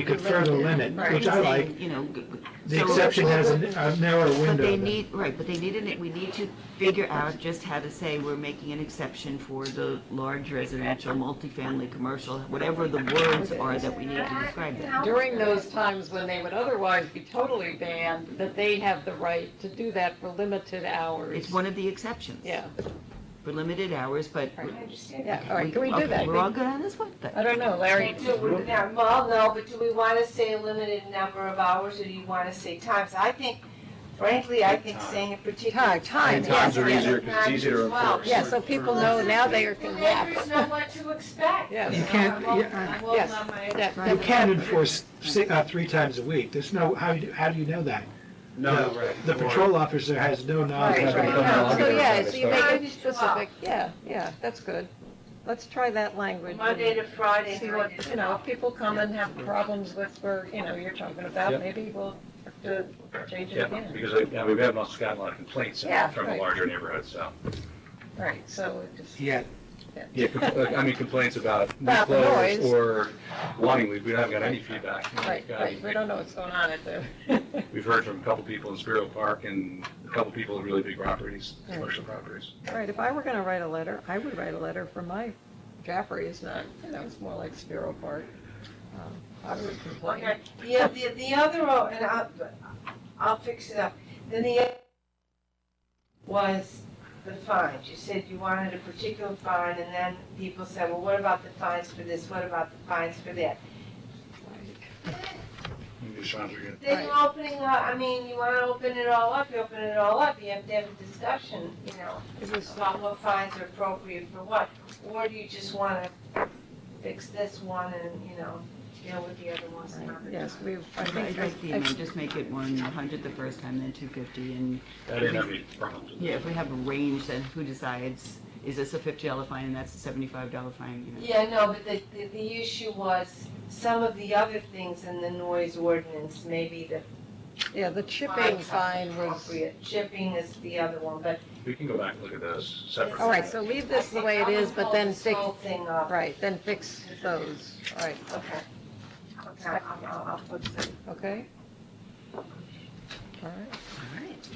we could further limit, Right. which I like. You know, g- g- The so- exception has a a narrow But window. they then. need, right, but they need, an- we need to figure out just how to say we're making an exception for the large residential, multifamily, commercial, whatever the words are that we need to describe that. During those times when they would otherwise be totally banned, that they have the right to do that for limited hours. It's one of the exceptions. Yeah, For limited hours, but. Right. I understand yeah, that. all right, can we do okay, that? We're all good on this one I thing. don't know, Larry, Do we- now, Well, no, but do we want to say a limited number of hours, or do you want to say times? I think, frankly, I think saying a particular. time, time. And times are yes, easier, 'cause it's easier to Times as well. enforce. Yeah, so people know now they are, Well, yeah, neighbors know what to expect. Yes. So You can't- I won't- yeah, I won't yes. let my- that- You can't enforce si- uh, three times a week. There's no, how, do you- how do you know that? No, The- right. The patrol officer has no knowledge. Right, of right. it. Yeah. So, yeah, so you make Time it is twelve. specific, yeah, yeah, that's good. Let's try that language. Monday to Friday, See nine what, to you know, twelve. if people come and have problems with where, you know, you're talking about, Yep. maybe we'll have to change it Yeah, again. because, uh, yeah, we've had lots, gotten a lot of complaints Yeah, from the right. larger neighborhoods, so. Right, so it just. Yeah, Yeah, compl- uh, I mean, complaints about new About the clothes noise. or wanting, we we haven't got any feedback. We've Right, got- right, we don't know what's going on at the, We've heard from a couple people in Spiro Park and a couple people in really big properties, Yeah. commercial properties. right, if I were gonna write a letter, I would write a letter for my, Jaffrey is not, you know, it's more like Sparrow Park. Um, I would complain. Okay, the, the, the other, oh, and I'll, I'll fix it up. Then the other was the fines. You said you wanted a particular fine, and then people said, well, what about the fines for this? What about the fines for that? Maybe Sean's are good. Then you're opening up, I mean, you wanna open it all up, you open it all up, you have to have a discussion, you know, It was, about what fines are appropriate for what. Or do you just wanna fix this one and, you know, deal with the other ones another yes, time? we, I I think think, I- Make the amount, just make it one hundred the first time, then two fifty, and, I didn't have any problems with yeah, that. if we have a range, then who decides? Is this a fifty dollar fine and that's a seventy-five dollar fine, you know? Yeah, no, but the, the, the issue was some of the other things in the noise ordinance, maybe the yeah, the chipping fine was, appropriate, chipping is the other one, but. We can go back and look at those separately. all right, so leave this the way it is, but then fix fix, Whole thing up, right, then fix those, all right, okay. Okay, I'll, I'll, I'll put it. okay? All right.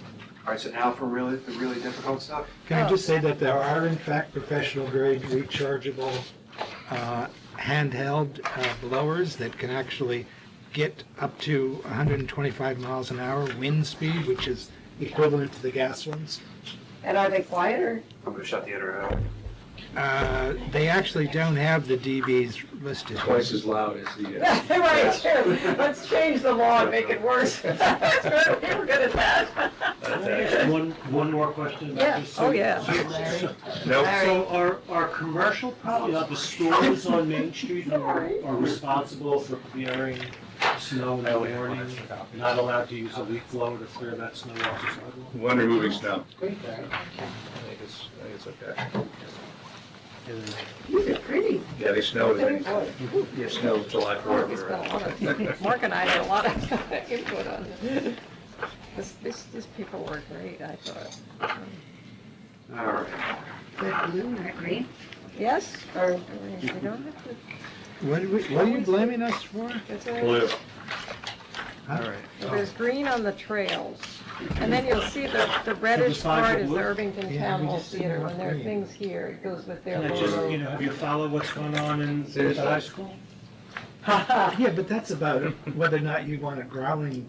All right, so now for really, the really difficult stuff. Can I just say that there are in fact professional grade rechargeable uh, handheld uh, blowers that can actually get up to 125 miles an hour wind speed, which is equivalent to the gas ones. And are they quieter? I'm gonna shut the internet off. Uh, They actually don't have the DBs listed. Twice as loud as the. uh, Right, sure. Let's change the law and make it worse. That's right, we were good at that. One, one more question Yeah. about this. Oh, yeah. Nope. So are, are commercial property, are the stores on Main Street who are are responsible for clearing snow in the morning? Not allowed to use a leaf blower to clear that snow off the sidewalk? One removing snow. I think it's, I think it's okay. These are pretty. Yeah, they snow, they, yeah, snow July Mark has 4th. been a lot or- of, Mark and I had a lot of input on this. This, this, these people were great, I thought. All right, Yes, or, I mean, we don't have to, What are we- what are you blaming us for? is there? Blue. All right. So There's green on the trails, and then you'll see the, the reddish part is the Irvington Yeah, Town we Hall just didn't Theater, want when there are green. things here, it goes with their And I just, you logo. know, have you followed what's going on in the high school? Uh, Yeah, but that's about whether or not you want a growling,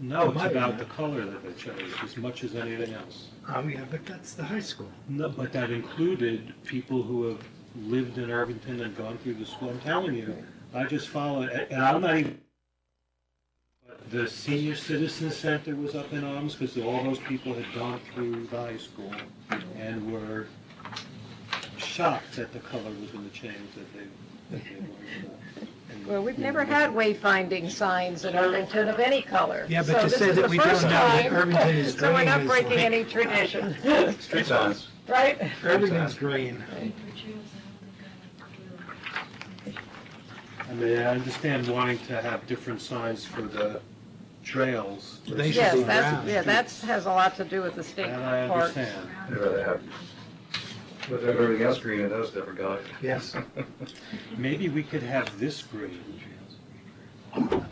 No, it's about the color that they chose, as much as anything else. um, yeah, but that's the high school. No, but that included people who have lived in Irvington and gone through the school. I'm telling you, I just followed, and and I'm not even. but The senior citizen center was up in arms because all those people had gone through the high school and were shocked that the color was going to change that they. that they uh, learned about. Well, we've never had wayfinding signs in Irvington of any color. Yeah, but So to this say is that the we don't first know that time. Irvington is So we're green not is breaking like- any tradition, Street signs. right? Everything's green. I mean, I understand wanting to have different signs for the trails. They should be versus- Yes, that's, brown. yeah, that's, has a lot to do with the state That I parks. understand. I'd rather have, with everything else green, it does different color. Yes. Maybe we could have this green